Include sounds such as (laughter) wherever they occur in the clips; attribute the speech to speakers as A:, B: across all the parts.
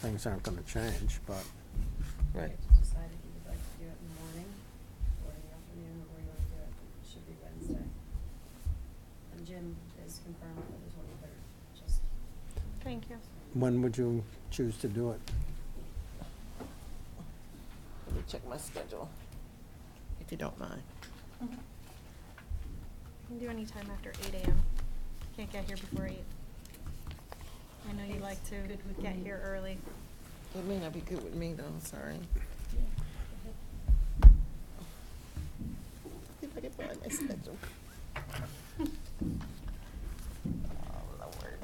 A: things aren't gonna change, but
B: Right.
C: Decide if you would like to do it in the morning, or in the afternoon, or you wanna do it, it should be Wednesday. And Jim is confirmed for the twenty-third, just.
D: Thank you.
A: when would you choose to do it?
B: Let me check my schedule, if you don't mind.
D: Can do any time after eight AM. Can't get here before eight. I know you like to
C: Good with
D: get
C: me.
D: here early.
B: It may not be good with me though, I'm sorry. If I can find my schedule. Oh, Lord.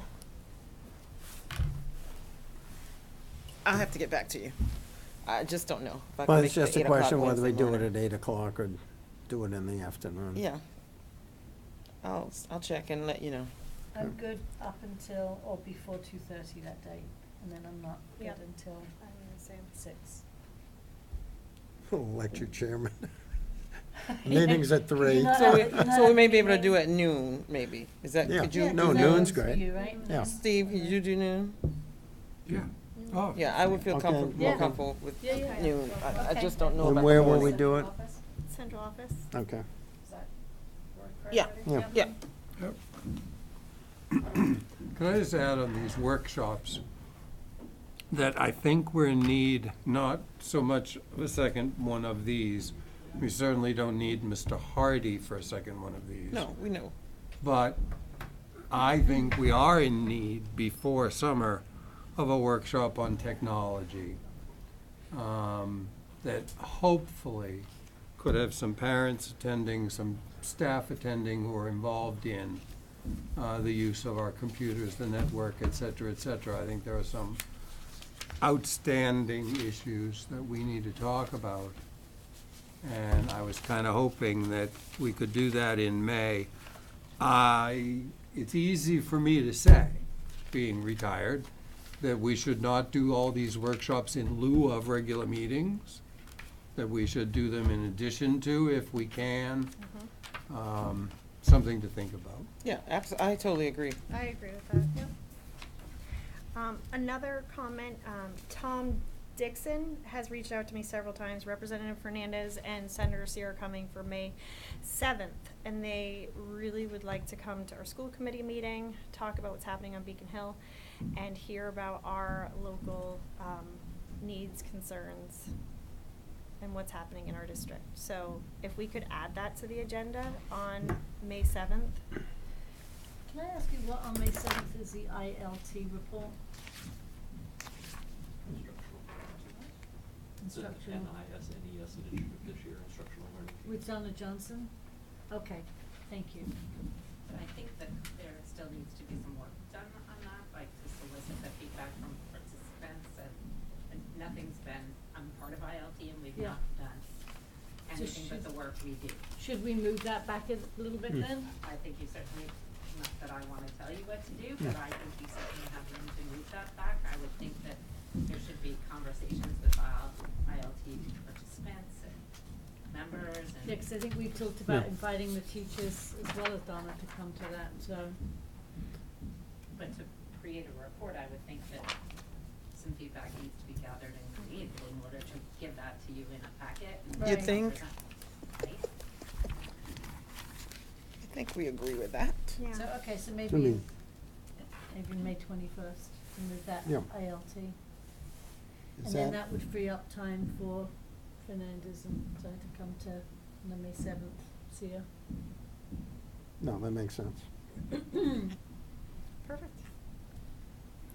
B: I'll have to get back to you. I just don't know. if I can
A: Well,
B: make
A: it's
B: the
A: just a
B: 8 o'clock
A: question whether we
B: Wednesday
A: do it
B: morning.
A: at eight Mm. o'clock or do it in the afternoon. (laughs)
B: Yeah. I'll, I'll check and let you know.
E: I'm good up until or before two thirty that day, and then I'm not good
D: Yep.
E: until
D: I'm the same.
E: six.
A: Elected
E: (laughs)
A: chairman. Meeting's at three.
E: No,
B: So
E: no,
B: we,
E: no,
B: so we may be able to
E: no.
B: do it at noon, maybe. Is that,
A: Yeah.
B: could
A: Yeah,
B: you?
A: no,
B: do
E: that
B: noon?
A: noon's
E: works for
A: great.
E: you, right?
A: Yeah.
B: Steve, could you do noon?
F: Yeah. Oh.
B: Yeah, I would feel
A: Okay.
B: comfortable, more
E: Yeah.
B: comfortable with
E: Yeah, yeah.
B: noon. I, I
E: Okay.
B: just don't know about
A: And
B: the
A: where will we
B: morning.
A: do it?
C: Office,
D: Central office?
A: Okay.
C: does that work for
B: Yeah.
C: everybody?
A: Yeah.
B: Yeah,
F: Yep. (coughs) Can I just add on these workshops, that I think we're in need, not so much of a second one of these. We certainly don't need Mr. Hardy for a second one of these.
B: no, we know.
F: But I think we are in need before summer of a workshop on technology um, that hopefully could have some parents attending, some staff attending who are involved in uh, the use of our computers, the network, et cetera, et cetera. I think there are some outstanding issues that we need to talk about. And I was kind of hoping that we could do that in May. I, it's easy for me to say, being retired, that we should not do all these workshops in lieu of regular meetings, that we should do them in addition to if we can.
D: Mm-hmm.
F: Um, Something to think about.
B: Yeah, abs- I totally agree.
D: I agree with that, yep. Um, another comment, um, Tom Dixon has reached out to me several times, Representative Fernandez and Senator Seer are coming for May seventh. And they really would like to come to our school committee meeting, talk about what's happening on Beacon Hill, and hear about our local, um, needs, concerns, and what's happening in our district. So if we could add that to the agenda on May seventh,
E: Can I ask you what on May seventh is the ILT report?
G: It's an
E: Instructional.
G: NISNES initiative E this year, instructional learning.
E: With Donna Johnson? Okay, thank you.
H: I think that there still needs to be some work done on that, like to solicit the feedback from participants and, and nothing's been, I'm part of ILT and we've
E: Yeah.
H: not done
E: So
H: anything but the
E: should-
H: work we do.
E: Should we move that back a little
A: Hmm.
E: bit then?
H: I think you certainly, not that I wanna tell you what to do, but I think you certainly have room to move that back. I would think that there should be conversations with IL ILT participants and members and.
E: Yeah, 'cause I think we talked about
A: Yeah.
E: inviting the teachers as well as Donna to come to that, so.
H: But to create a report, I would think that some feedback needs to be gathered and created in order to give that to you in a packet. and
E: You'd
H: present-
B: think?
H: Right?
B: I think we agree with that.
D: yeah.
E: So, okay, so
A: I
E: maybe,
A: mean-
E: maybe May twenty-first, to move that
A: Yeah.
E: ILT. And
A: Is
E: then
A: that-
E: that would free up time for Fernandez and Di to come to the May seventh, see her.
A: No, that makes sense.
D: Perfect.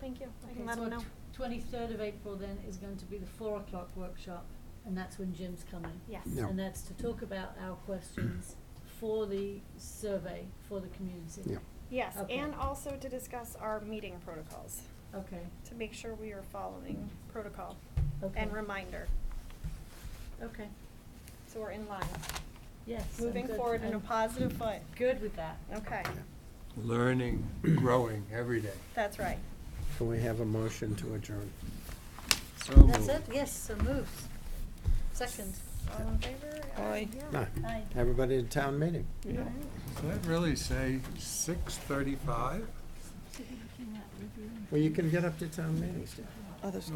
D: Thank you. I
E: Okay,
D: can let
E: so
D: them know.
E: twenty-third of April then is going to be the four o'clock workshop, and that's when Jim's coming.
D: Yes.
A: Yeah.
E: And that's to talk about our questions for the survey, for the community.
A: Yeah.
D: Yes,
E: Okay. Oh.
D: and also to discuss our meeting protocols,
E: Okay,
D: to make sure we are following protocol
E: Okay.
D: and reminder,
E: okay,
D: so we're in line.
E: yes. I'm
D: Moving
E: good.
D: forward in a
E: I'm
D: positive foot.
E: Good with that.
D: Okay,
F: Learning, growing every day.
D: that's right.
A: Can we have a motion to adjourn?
F: So
E: That's
F: moved.
E: it, yes, so moved. Second.
D: All in favor?
B: Aye.
A: No,
E: Aye.
A: everybody at town meeting.
D: Yeah.
F: Does that really say six thirty-five?
A: Well, you can get up to town meetings.
B: Others